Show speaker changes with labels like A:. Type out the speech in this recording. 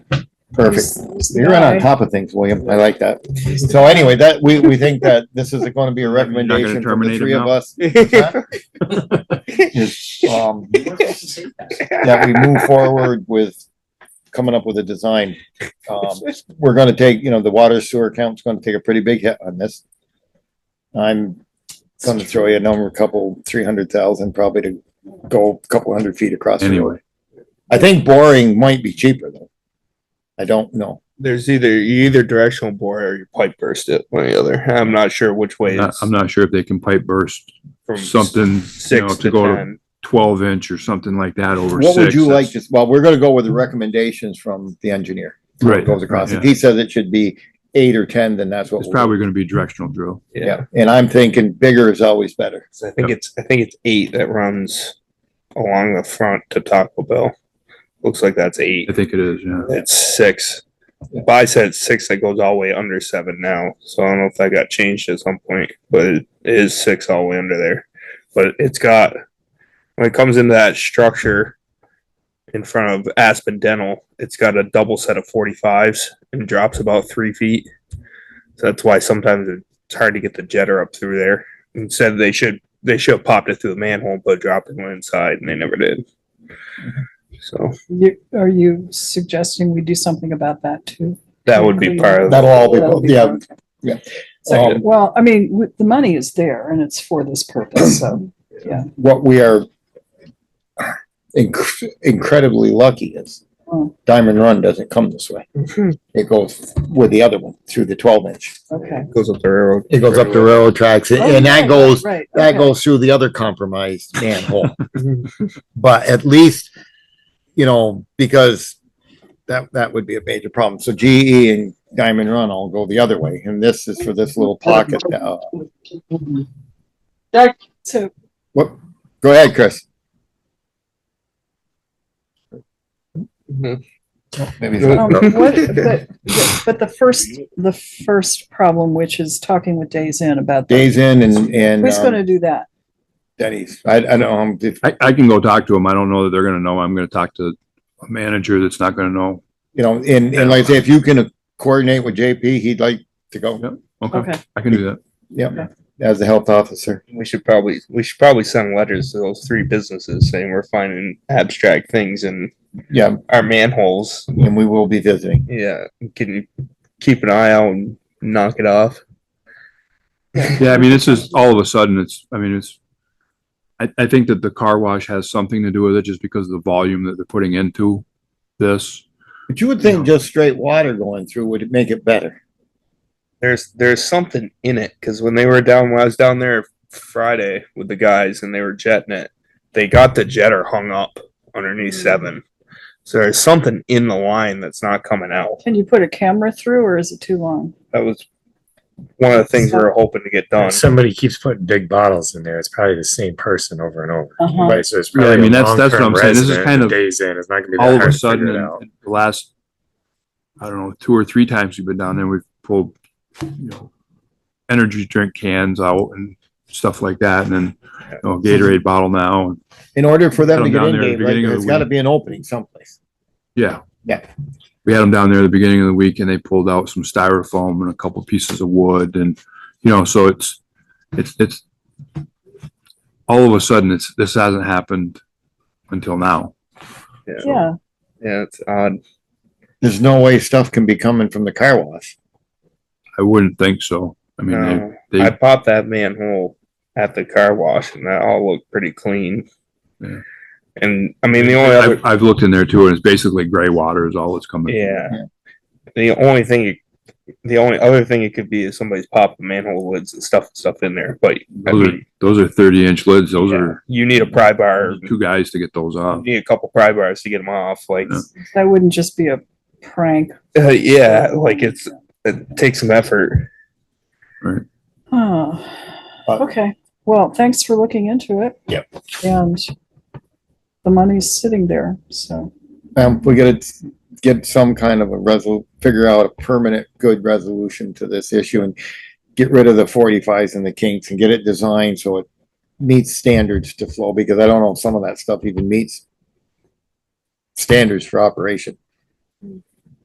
A: Perfect. You're right on top of things, William. I like that. So anyway, that, we, we think that this is gonna be a
B: You're not gonna
A: recommendation from the
B: terminate
A: three
B: him
A: of
B: now?
A: us. Is, um, That we move forward with coming up with a design. Um, we're gonna take, you know, the water sewer account's gonna take a pretty big hit on this. I'm gonna throw you a number, a couple, three hundred thousand probably to go a couple hundred feet across. the road.
B: Anyway,
A: I think boring might be cheaper though. I don't know.
C: There's either you either directional bore or you pipe burst it, one or the other. I'm not sure which way.
B: not-
C: it's
B: I'm not sure if they can pipe burst
C: from
B: something, you know,
C: six
B: to
C: to
B: go to
C: ten.
B: twelve inch or something like that over six.
A: What would you like
B: That's-
A: to, well, we're gonna go with the recommendations from the engineer. How it
B: Right,
A: Goes across.
B: right,
A: If he says it should be eight or ten, then that's what.
B: It's
A: we'll-
B: probably gonna be directional drill.
A: Yeah, and I'm thinking bigger is always better.
C: 'Cause I think it's I think it's eight that runs along the front to Taco Bell. Looks like that's eight.
B: I think it is, yeah.
C: It's six. By said six that goes all the way under seven now. So I don't know if that got changed at some point, but it is six all the way under there. But it's got when it comes into that structure in front of Aspen Dental, it's got a double set of forty fives and drops about three feet. So that's why sometimes it's hard to get the jetter up through there. Instead, they should they should have popped it through the manhole, but dropped it went inside, and they never did. So
D: You, are you suggesting we do something about that too?
C: that would be part of
A: That'll all
D: That'll
A: be, yeah. yeah.
C: Second.
A: Um,
D: Well, I mean, w- the money is there and it's for this purpose, so.
A: What we are inc- incredibly lucky is
D: Oh.
A: Diamond Run doesn't come this way. It goes with the other one through the twelve inch.
D: Okay.
C: Goes up the railroad.
A: It goes up the railroad tracks
D: Oh,
A: and- and that goes,
D: Right.
A: that
D: okay. Mm-hmm.
A: goes through the other compromised manhole. But at least, you know, because that, that would be a major problem. So GE and Diamond Run all go the other way, and this is for this little pocket. uh,
D: So,
A: What, go ahead, Chris. Maybe it's
D: um,
A: not-
D: what, but, but the first, the first problem, which is talking with Days In about. that.
A: Days in and, and
D: Who's gonna
A: um,
D: do that?
A: Denny's. I, I don't, know, um, if-
B: I, I can go talk to them. I don't know that they're gonna know. I'm gonna talk to a manager that's not gonna know.
A: you know, and, and like I say, if you can coordinate with JP, he'd like to
B: Yeah.
A: go,
B: Okay,
D: Okay,
B: I can do that.
A: yep, as the health officer.
C: We should probably we should probably send letters to those three businesses saying we're finding abstract things in
A: Yeah,
C: our manholes.
A: and we will be visiting.
C: Yeah, can you keep an eye out and knock it off?
B: Yeah, I mean, this is all of a sudden, it's, I mean, it's, I, I think that the car wash has something to do with it just because of the volume that they're putting into this.
A: But you would think just straight water going through would make it better.
C: There's there's something in it because when they were down when I was down there Friday with the guys and they were jetting it, they got the jetter hung up underneath seven. So there's something in the line that's not coming out.
D: can you put a camera through or is it too long?
C: That was one of the things we were hoping to get
B: Oh,
C: done.
E: Somebody keeps putting big bottles in there. It's probably the same person over and over.
D: Uh-huh.
E: Right, so it's
B: Yeah, I
E: probably
B: mean,
E: a
B: that's- that's what I'm saying.
E: long-term
B: This is
E: resident
B: kind
E: that
B: of
E: Days in, it's not gonna be
B: All
E: that
B: of a
E: hard to
B: sudden,
E: figure it
B: in
E: out.
B: in the last, I don't know, two or three times we've been down there, we've pulled, you know, energy drink cans out and stuff like that, and then, you know, Gatorade bottle now, and,
A: In order for them to
B: Come
A: get
B: down
A: in,
B: there at the
A: Dave, right,
B: beginning of
A: there's
B: the
A: gotta
B: week.
A: be an opening someplace.
B: yeah.
A: Yeah.
B: We had them down there at the beginning of the week and they pulled out some styrofoam and a couple pieces of wood and, you know, so it's, it's, it's, all of a sudden, it's, this hasn't happened until now.
D: Yeah,
C: Yeah, it's odd.
A: There's no way stuff can be coming from the car wash.
B: I wouldn't think so. I mean,
C: No,
B: they,
C: I
B: they,
C: popped that manhole at the car wash, and that all looked pretty clean.
B: Yeah.
C: And I mean, the only other
B: I've, I've looked in there too and it's basically gray water is all that's coming.
C: yeah, the only thing, you, the only other thing it could be is somebody's popped the manhole lids and stuff stuff in there. But I
B: Those are,
C: mean,
B: those are thirty inch lids. Those
C: yeah,
B: are
C: you need a pry bar.
B: two guys to get those
C: You
B: off.
C: need a couple pry bars to get them off. Like,
D: that wouldn't just be a prank.
C: uh, yeah, like it's it takes some effort.
D: Oh,
A: But-
D: okay. Well, thanks for looking into it.
A: Yep.
D: And the money's sitting there, so.
A: Um, we gotta get some kind of a resol, figure out a permanent good resolution to this issue and get rid of the forty-fives and the kinks and get it designed so it meets standards to flow, because I don't know if some of that stuff even meets standards for operation.